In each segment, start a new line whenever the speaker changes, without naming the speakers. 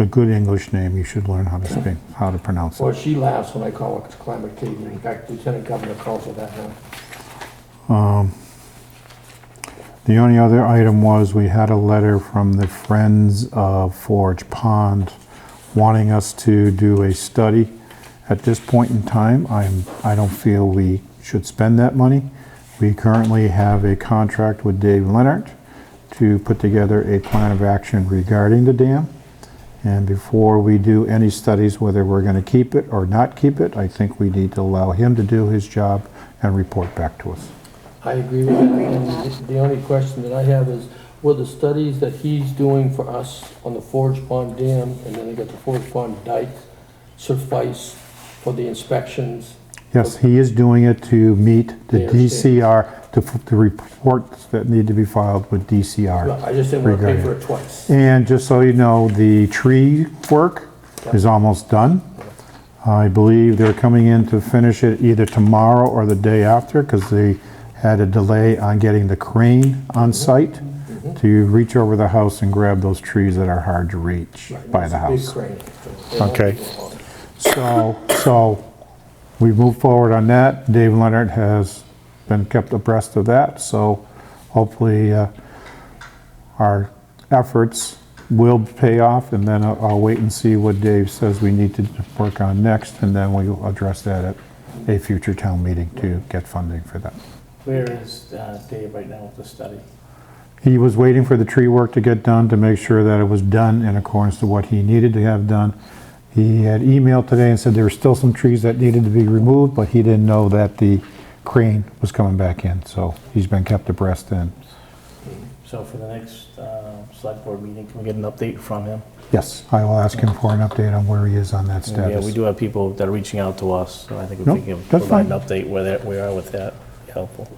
a good English name, you should learn how to speak, how to pronounce it.
Well, she laughs when I call it climate caving. In fact, Lieutenant Governor calls it that now.
The only other item was we had a letter from the Friends of Forge Pond wanting us to do a study. At this point in time, I'm, I don't feel we should spend that money. We currently have a contract with Dave Leonard to put together a plan of action regarding the dam. And before we do any studies, whether we're going to keep it or not keep it, I think we need to allow him to do his job and report back to us.
I agree with that. The only question that I have is, were the studies that he's doing for us on the Forge Pond Dam, and then they got the Forge Pond Dike, suffice for the inspections?
Yes, he is doing it to meet the
Yeah, I understand.
DCR, to f- the reports that need to be filed with DCR.
I just didn't want to pay for
Regarding-
it twice.
And just so you know, the tree work is almost done. I believe they're coming in to finish it either tomorrow or the day after because they had a delay on getting the crane on site to reach over the house and grab those trees that are hard to reach by the
Big
house.
crane. They won't
Okay.
do it all.
So, so we move forward on that. Dave Leonard has been kept abreast of that, so hopefully uh, our efforts will pay off, and then I'll I'll wait and see what Dave says we need to work on next, and then we'll address that at a future town meeting to get funding for that.
Where is uh, Dave right now with the study?
He was waiting for the tree work to get done to make sure that it was done in accordance to what he needed to have done. He had emailed today and said there were still some trees that needed to be removed, but he didn't know that the crane was coming back in, so he's been kept abreast and,
So for the next uh, select board meeting, can we get an update from him?
yes, I will ask him for an update on where he is on that
Yeah,
status.
we do have people that are reaching out to us, so I think if
No,
we can
that's
provide
fine.
an update where that, we are with that, it'd be helpful.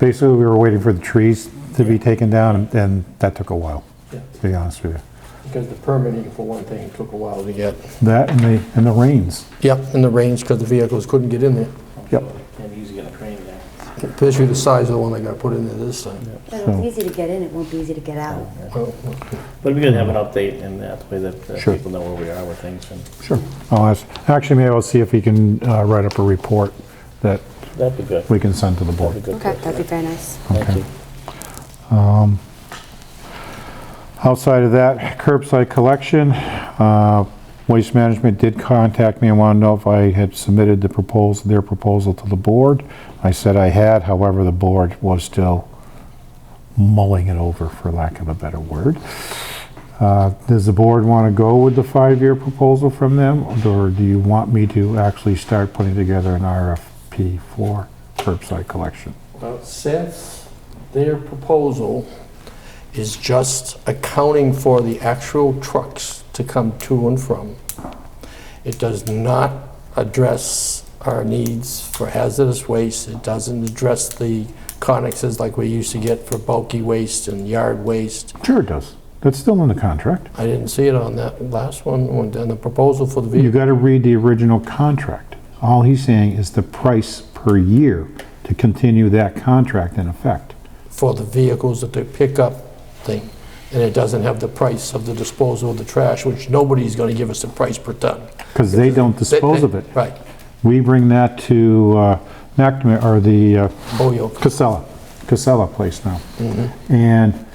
Basically, we were waiting for the trees to be taken down, and- and that took a while,
Yeah,
to be honest with you.
Because the permitting, for one thing, took a while to get.
That and the, and the rains.
Yep, and the range, because the vehicles couldn't get in there.
Yep.
And he's got a crane there.
Especially the size of the one that got put in there this time.
But
So-
it's easy to get in, it won't be easy to get out.
Well,
But we could have an update and that way that uh,
Sure.
people know where we are with things and
Sure. I'll ask, actually, maybe I'll see if he can uh, write up a report that
that'd be good.
we can send to the board.
That'd be good.
Okay, that'd be very nice.
Thank you.
Outside of that, curbside collection, uh, Waste Management did contact me and wanted to know if I had submitted the proposal, their proposal to the board. I said I had, however, the board was still mulling it over, for lack of a better word. Uh, Does the board want to go with the five-year proposal from them, or do you want me to actually start putting together an RFP for curbside collection?
Well, since their proposal is just accounting for the actual trucks to come to and from, it does not address our needs for hazardous waste, it doesn't address the connexes like we used to get for bulky waste and yard waste.
Sure it does. That's still in the contract.
I didn't see it on that last one, on the proposal for the
You
vehicle.
got to read the original contract. All he's saying is the price per year to continue that contract in effect.
for the vehicles that they pick up thing, and it doesn't have the price of the disposal of the trash, which nobody's gonna give us the price per ton.
Because they don't dispose of it.
Right,
We bring that to uh, McNamara, or the uh,
Holyoke.
Casella, Casella place now.
Mm-hmm.
And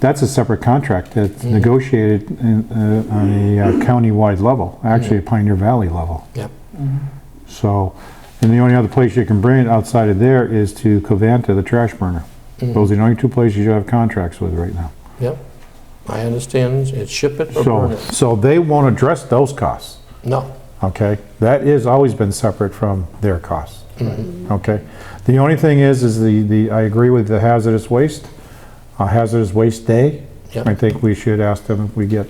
that's a separate contract that's negotiated in, uh, on a uh, countywide level, actually a Pioneer Valley level.
Mm-hmm. Yep.
So, and the only other place you can bring it outside of there is to Covanta, the trash burner.
Mm-hmm.
Those are the only two places you have contracts with right now.
Yep, I understand, it's ship it or burn
So,
it.
so they won't address those costs,
No,
okay? That has always been separate from their costs,
Mm-hmm.
okay? The only thing is, is the, the, I agree with the hazardous waste, uh, hazardous waste day.
Yep.
I think we should ask them if we get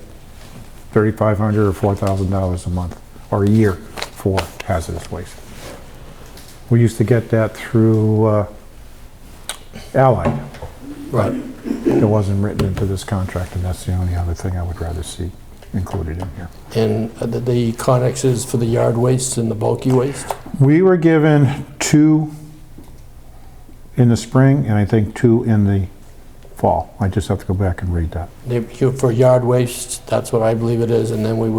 thirty-five hundred or four thousand dollars a month or a year for hazardous waste. We used to get that through uh, Allied.
right.
It wasn't written into this contract, and that's the only other thing I would rather see included in here.
And the- the connexes for the yard waste and the bulky waste?
We were given two in the spring, and I think two in the fall. I just have to go back and read that.
They- For yard waste, that's what I believe it is, and then we would